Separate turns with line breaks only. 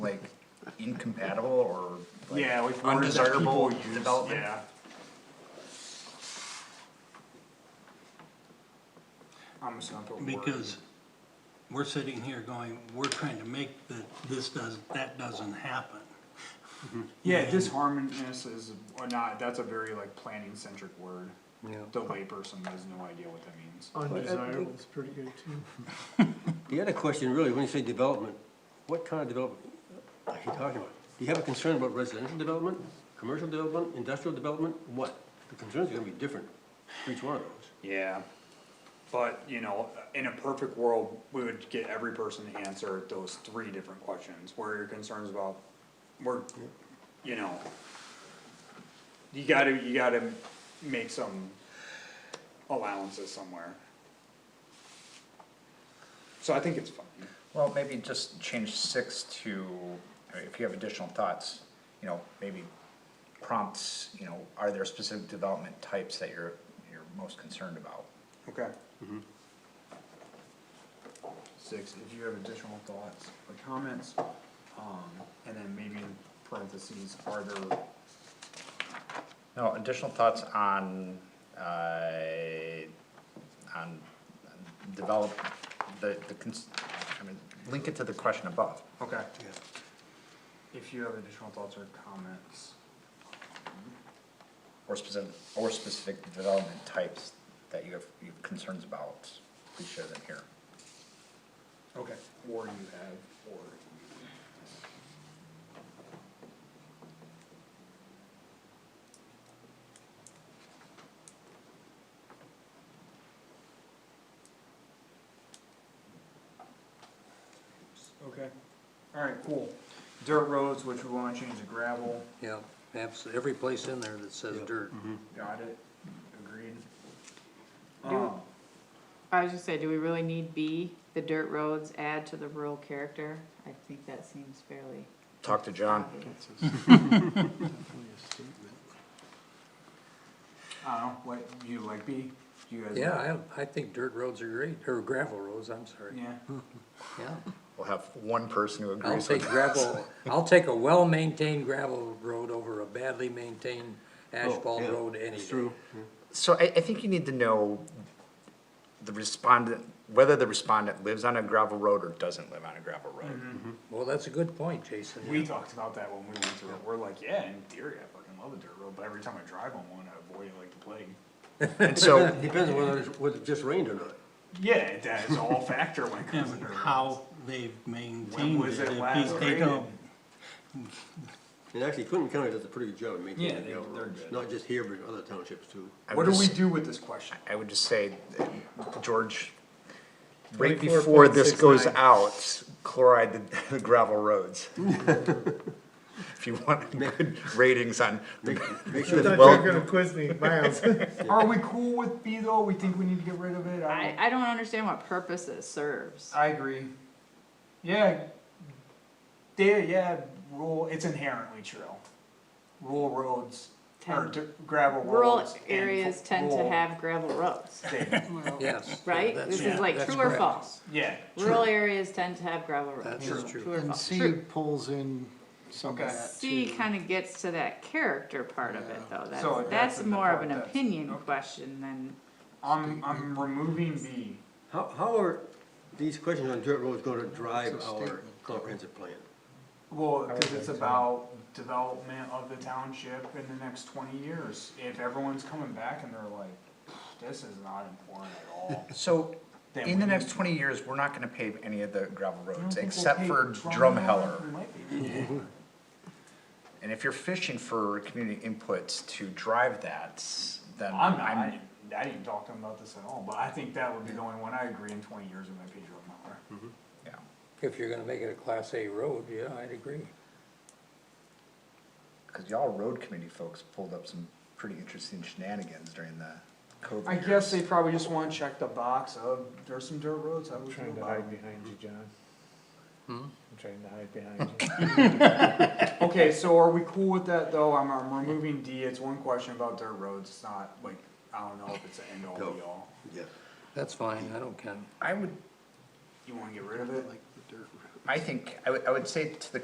like incompatible or like
Yeah, like words that
undesirable
people use,
development?
yeah. I'm just gonna put word.
Because we're sitting here going, we're trying to make that, this does, that doesn't happen.
Yeah, disharmonious is, or not, that's a very like planning centric word.
Yeah.
The layperson has no idea what that means.
Undesirable is pretty good too.
The other question really, when you say development, what kind of development are you talking about? Do you have a concern about residential development, commercial development, industrial development? What? The concerns are gonna be different for each one of those.
Yeah. But, you know, in a perfect world, we would get every person to answer those three different questions, where are your concerns about, where, you know. You gotta, you gotta make some allowances somewhere. So I think it's fine,
Well, maybe just change six to, I mean, if you have additional thoughts, you know, maybe prompts, you know, are there specific development types that you're, you're most concerned about?
okay,
Six.
if you have additional thoughts or comments, um, and then maybe in parentheses, are there
No, additional thoughts on, uh, on develop, the, the, cons- I mean, link it to the question above.
Okay. If you have additional thoughts or comments.
Or specific, or specific development types that you have, you have concerns about, please share them here.
Okay. Or you have, or. Okay, alright, cool. Dirt roads, which we wanna change to gravel,
Yeah, abs, every place in there that says dirt.
got it, agreed. Um,
I was just saying, do we really need B, the dirt roads add to the rural character? I think that seems fairly
Talk to John.
obvious.
I don't know, what, you like B? You guys?
Yeah, I, I think dirt roads are great, or gravel roads, I'm sorry,
Yeah,
yeah.
We'll have one person who
I'll
agrees
take
with us.
gravel, I'll take a well-maintained gravel road over a badly maintained asphalt
yeah,
road any
It's
day.
true.
So I, I think you need to know the respondent, whether the respondent lives on a gravel road or doesn't live on a gravel road.
Mm-hmm.
Well, that's a good point, Jason.
we talked about that when we went through it, we're like, yeah, in theory, I fucking love a dirt road, but every time I drive on one, I avoid it like the plague.
And so,
Depends on whether, it's- whether it just rained or not.
Yeah, that is all factor when it
Yeah,
comes to
but
dirt roads.
how they've
When
maintained it.
was it
if
last
you take
graded?
out-
And actually Clinton County does a pretty good job of
Yeah,
maintaining
they-
the gravel
they're
roads,
good.
not just here, but other townships too.
I
What
would
do we
just,
do with this question?
I would just say, that George, right before this goes
24.69.
out, chloride the- the gravel roads. If you want good ratings on, the-
Make
I
sure
thought
that,
you
Well-
were gonna quiz me, Miles.
Are we cool with B though, we think we need to get rid of it, I
I,
don't,
I don't understand what purpose it serves.
I agree. Yeah, there, yeah, rule, it's inherently true. Rural roads, or
Tend-
dirt- gravel
Rural
roads. and fu-
areas tend to
rural-
have gravel roads,
Yes.
right?
that's-
This
yeah,
is like
that's
true or
correct.
false.
Yeah,
Rural areas tend to have gravel roads.
That's true.
True or
And
false?
C
True.
pulls in some of
Okay.
that
C
too.
kind of gets to that character part of it though.
So
That's,
that's
that's
the
more of
part
an
that's-
opinion
okay.
question than,
I'm, I'm removing B.
how, how are these questions on dirt roads gonna drive
It's a
our
statement.
comprehensive plan?
Well, cause it's about development of the township in the next twenty years. If everyone's coming back and they're like, this is not important at all.
so
then
in the
we
next
need-
twenty years, we're not gonna pave any of the gravel
I don't
roads,
think we'll
except
pay
for
We
Drumheller.
might be.
And if you're fishing for community inputs to drive that, then
I'm not, I
I'm,
didn't, I didn't talk to him about this at all, but I think that would be the only one I agree in twenty years with my pay Drumheller.
yeah.
If you're gonna make it a class A road, yeah, I'd agree.
Cause y'all road committee folks pulled up some pretty interesting shenanigans during the COVID.
I guess they probably just wanna check the box of, there's some dirt roads, I would feel
Trying to
about
hide
it.
behind you, John. I'm trying to hide behind you.
Okay, so are we cool with that though? I'm, I'm removing D, it's one question about dirt roads, it's not like, I don't know if it's an end all
Go.
be all.
Yeah.
That's fine, I don't care.
I would,
You wanna get rid of it?
I think, I would, I would say to the